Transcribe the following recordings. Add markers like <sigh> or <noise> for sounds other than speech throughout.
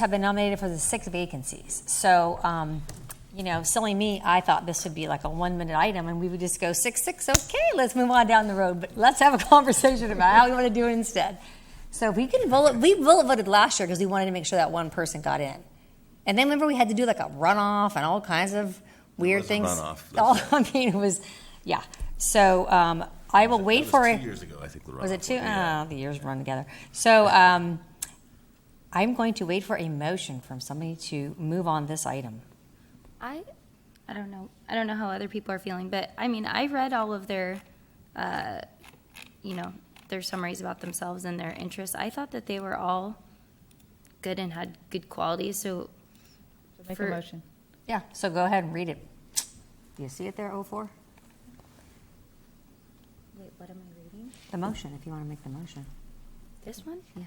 have been nominated for the six vacancies. So, um, you know, silly me, I thought this would be like a one minute item and we would just go six, six, okay, let's move on down the road, but let's have a <laughs> conversation about how we want to do it instead. So we can bullet, we bullet voted last year because we wanted to make sure that one person got in. And then remember we had to do like a runoff and all kinds of weird was a things. <laughs> runoff, that's All, I mean, it was, yeah. So, um, I will wait That for was it. Two years ago, I think. the Was runoff it two? yeah. Oh, the years run together. So um, I'm going to wait for a motion from somebody to move on this item. I, I don't know. I don't know how other people are feeling, but I mean, I read all of their, uh, you know, their summaries about themselves and their interests. I thought that they were all good and had good qualities. So, Make a For- motion. Yeah. So go ahead and read it. Do you see it there, 04? wait, what am I reading? The motion, if you want to make the motion. This one? Yeah.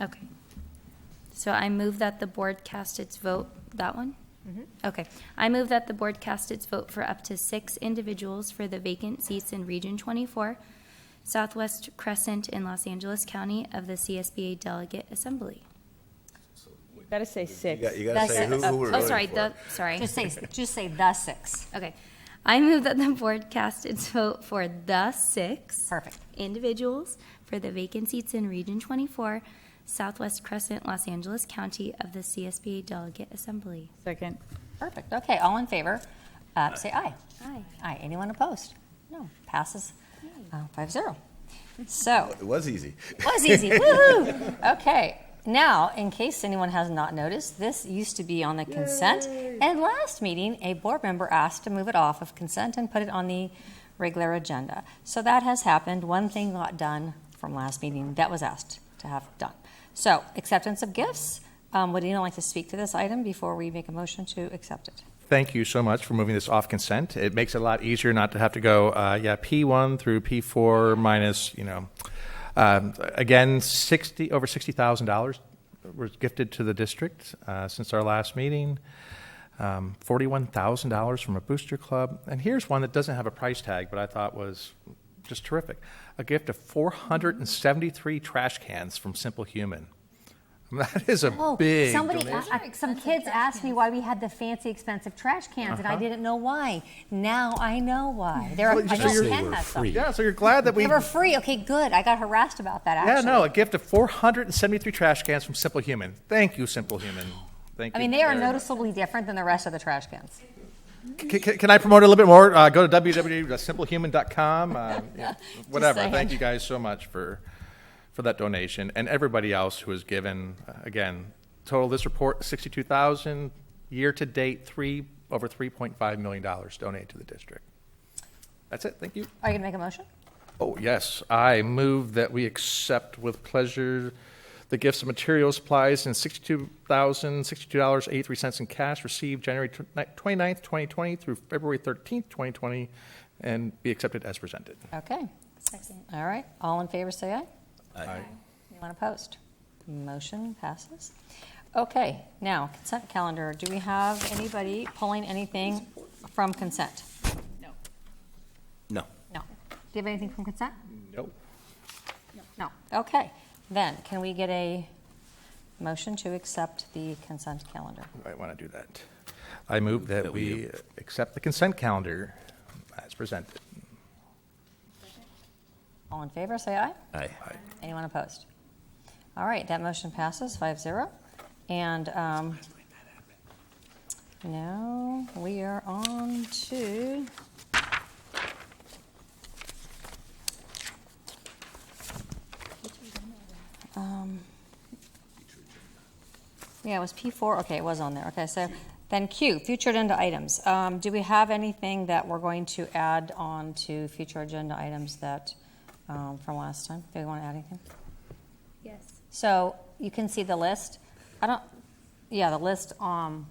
Okay. So I move that the board cast its vote, that one? Mm-hmm. Okay. I move that the board cast its vote for up to six individuals for the vacant seats in Region 24, Southwest Crescent in Los Angeles County of the CSBA Delegate Assembly. Gotta say six. You got- e- You gotta Oh. That's say it. who, who we're Oh, voting sorry, for. the, sorry. Just <laughs> say, just say the six. Okay. I move that the board cast its vote for the six Perfect. individuals for the vacant seats in Region 24, Southwest Crescent, Los Angeles County of the CSBA Delegate Assembly. Second. Perfect. Okay. All in favor, uh, say aye. Aye. Aye. Anyone opposed? No. Passes uh, 5 0. So. It was easy. was easy. Woohoo! Okay. Now, in case anyone has not noticed, this used to be on the consent. And last meeting, a board member asked to move it off of consent and put it on the regular agenda. So that has happened. One thing got done from last meeting that was asked to have done. So, acceptance of gifts. Um, would anyone like to speak to this item before we make a motion to accept it? Thank you so much for moving this off consent. It makes it a lot easier not to have to go, uh, yeah, P1 through P4 minus, you know. Um, again, 60, over $60,000 was gifted to the district uh, since our last meeting. Um, $41,000 from a booster club. And here's one that doesn't have a price tag, but I thought was just terrific. A gift of 473 trash cans from Simple Human. <laughs> That is a Oh, big somebody, donation. uh, some kids asked me why we had the fancy, expensive trash cans, and I didn't know why. Now I know why. They're Uh-huh. Well, you I just know say Ken has some. Yeah, so you're glad that we They were free. Okay, good. I got harassed about that. Yeah, Actually, no, a gift of 473 trash cans from Simple Human. Thank you, Simple Human. Thank you. I mean, they are very much. noticeably different than the rest of the trash cans. C- c- can I promote it a little bit more? Uh, go to www.simplehuman.com. <laughs> Um, yeah, whatever. saying. Thank you guys so much for for that donation and everybody else who has given. Uh, again, total this report 62,000 year to date, three over 3.5 million dollars donated to the district. That's it. Thank you. Are you gonna make a motion? Oh, yes. I move that we accept with pleasure the gifts of materials, supplies, and $62,062.83 in cash received January tw- ni- 29th, 2020 through February 13th, 2020, and be accepted as presented. Okay. Second. All right. All in favor, say aye. Aye. Anyone opposed? Motion passes. Okay. Now consent calendar. Do we have anybody pulling anything from consent? No. No. Do you have anything from consent? Nope. No. Okay. Then can we get a motion to accept the consent calendar? I want to do that. I move that we accept the consent calendar as presented. All in favor, say aye. Aye. Anyone opposed? All right, that motion passes 5-0. And, um, now we are on to Um, Yeah, it was P four, okay, it was on there, okay, so then Q, future agenda items. Um, do we have anything that we're going to add on to future agenda items that, um, from last time? Do we want to add anything? Yes. So you can see the list. I don't, yeah, the list um,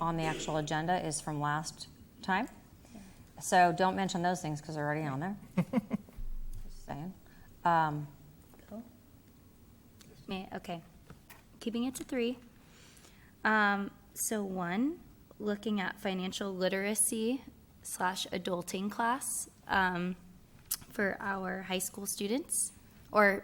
on the actual agenda is from last time. So don't mention those things because they're already on there. Just saying. Um, May, okay. Keeping it to three. Um, so one, looking at financial literacy slash adulting class, um, for our high school students, or